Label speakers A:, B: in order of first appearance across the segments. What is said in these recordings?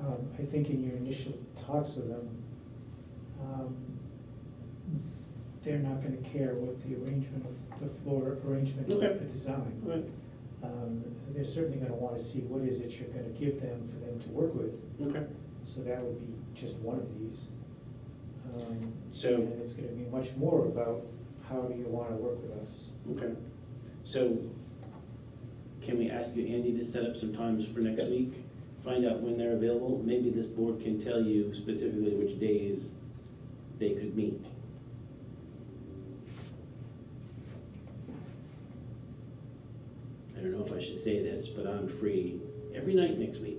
A: um, I think in your initial talks with them, um, they're not gonna care what the arrangement of, the floor arrangement is,
B: Okay.
A: the design.
B: Right,
A: Um, They're certainly gonna wanna see what is it you're gonna give them for them to work with,
B: okay.
A: so that would be just one of these. Um,
B: So-
A: And it's gonna be much more about how do you wanna work with us.
B: Okay, so can we ask you, Andy, to set up some times for next
A: Yeah.
B: week? Find out when they're available, maybe this board can tell you specifically which days they could meet. I don't know if I should say this, but I'm free every night next week.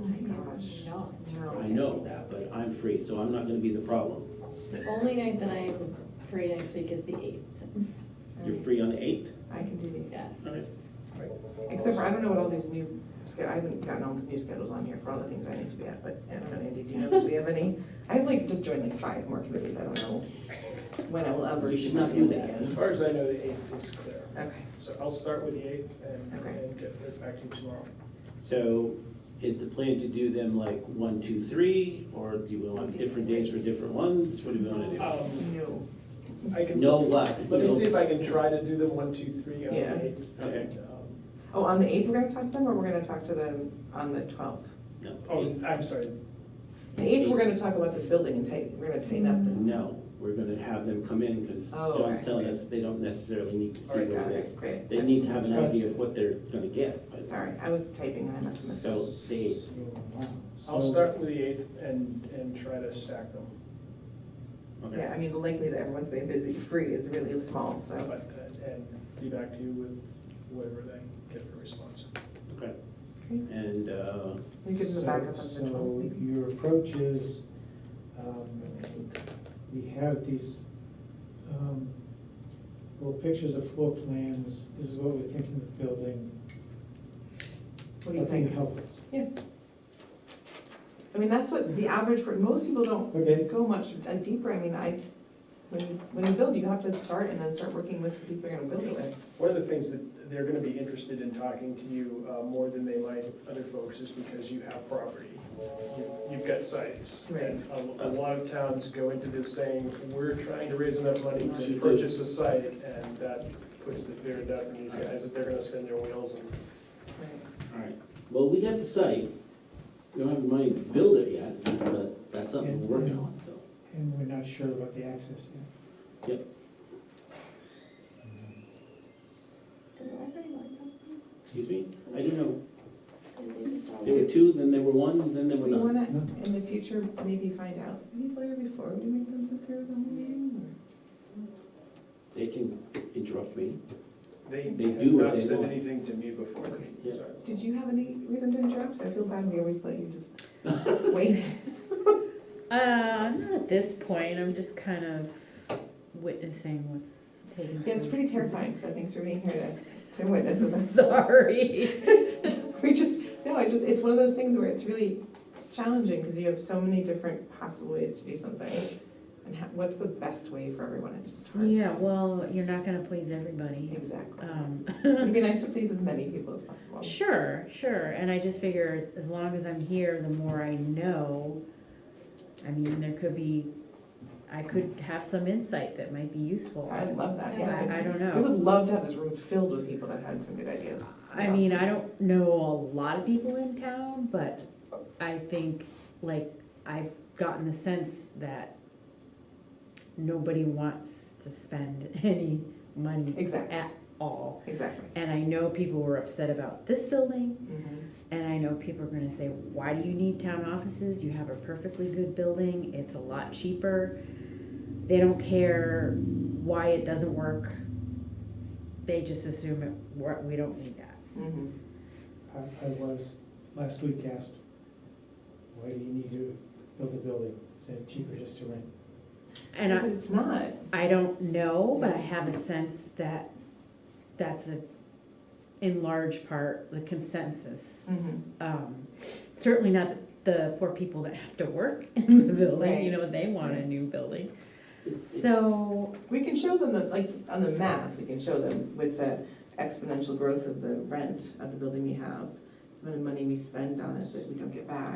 C: Oh my gosh.
D: No.
C: No.
B: I know that, but I'm free, so I'm not gonna be the problem.
D: The only night that I'm free next week is the eighth,
B: You're free on the eighth?
C: I can do the,
D: yes.
B: All right.
C: except for, I don't know what all these new, sch- I haven't gotten all the new schedules on here for all the things I need to be at, but I don't know, Andy, do you know, do we have any? I've like just joined like five more committees, I don't know when I will ever.
B: You should
C: be
B: not do
C: able to
B: that.
C: get
E: As
C: in.
E: far as I know, the eighth is clear.
C: Okay,
E: So I'll start with the eighth and,
C: Okay.
E: and get right back to you tomorrow.
B: So is the plan to do them like one, two, three, or do you want different days for different ones? What do you want to
E: Um,
C: no,
E: I
B: do?
E: can,
B: No what?
E: let me
B: No-
E: see if I can try to do them one, two, three on
C: Yeah.
E: the eighth.
B: Okay.
E: and, um,
C: oh, on the eighth, we're gonna talk to them, or we're gonna talk to them on the twelfth?
B: No,
E: Oh, I'm sorry,
C: The eighth, we're gonna talk about this building and tighten, we're gonna tighten up the.
B: no, we're going to have them come in because
C: Oh,
B: John's
C: okay,
B: telling
C: okay.
B: us they don't necessarily need to see
C: Alright,
B: what
C: got
B: it
C: it,
B: is.
C: great.
B: They need to have an idea of what they're going to get. but-
C: Sorry, I was typing and I must have missed.
B: So they,
A: So, um,
E: I'll
A: so-
E: start with the eighth and, and try to stack them.
C: Yeah,
B: okay.
C: I mean, the likelihood that everyone's been busy free is really small, so.
E: But, uh, And be back to you with whatever they get for response.
B: Okay.
C: Great.
B: And, uh,
C: We could go
A: So-
C: back up on the twelfth,
A: So
C: maybe.
A: your approach is, um, we have these, um, little pictures of floor plans, this is what we're thinking of building.
C: What do you
A: I think
C: think?
A: help us.
C: Yeah. I mean, that's what the average, per- most people don't
A: Okay,
C: go much uh, deeper, I mean, I, when you, when you build, you have to start and then start working with the people you're gonna build it with.
E: One of the things that they're gonna be interested in talking to you uh, more than they might other folks is because you have property. You- You've got sites.
C: Right.
E: And a- a lot of towns go into this saying, we're trying to raise enough money to purchase a site, and that puts the fear in doubt in these guys that they're gonna spin their wheels and
B: all right, well, we got the site. We don't have the money to build it yet, but that's something we're working on, so.
A: and we're not sure about the access yet.
F: Did the library want something?
B: Excuse me? I don't know.
F: Did they just all?
B: There were two, then there were one, then there were
C: We
B: none.
C: wanna, in the future, maybe find out, people here before we make them sit through the whole meeting,
B: They can interrupt me.
E: they
B: They
E: have
B: do what
E: not
B: they
E: said
B: want.
E: anything to me before.
B: Yeah.
E: Sorry.
C: or, did you have any reason to interrupt? I feel bad, we always let you just wait.
G: Uh, not at this point. I'm just kind of witnessing what's taking.
C: Yeah, it's pretty terrifying, so thanks for being here to, to witness this.
G: Sorry.
C: We just, no, I just, it's one of those things where it's really challenging because you have so many different possible ways to do something. And ha- what's the best way for everyone, it's just hard.
G: Yeah, well, you're not gonna please everybody.
C: Exactly.
G: Um,
C: It'd be nice to please as many people as possible.
G: sure, sure. And I just figure as long as I'm here, the more I know. I mean, there could be, I could have some insight that might be useful.
C: I love that, yeah.
G: I, I don't
C: We
G: know.
C: would love to have this room filled with people that had some good ideas.
G: I mean, I don't know a lot of people in town, but I think, like, I've gotten the sense that nobody wants to spend any money
C: Exactly,
G: at all.
C: exactly.
G: And I know people were upset about this building,
C: Mhm.
G: and I know people are gonna say, why do you need town offices? You have a perfectly good building, it's a lot cheaper. They don't care why it doesn't work. They just assume it, wor- we don't need that.
C: Mhm.
A: I, I was, last week asked, why do you need to build a building? Is it cheaper just to rent?
G: And I,
C: But It's not,
G: I don't know, but I have a sense that that's a, in large part, the consensus.
C: Mhm.
G: Um, Certainly not the poor people that have to work in the building, you know, they want a new building. So,
C: We can show them the, like, on the map, we can show them with the exponential growth of the rent of the building we have, the amount of money we spend on it that we don't get back.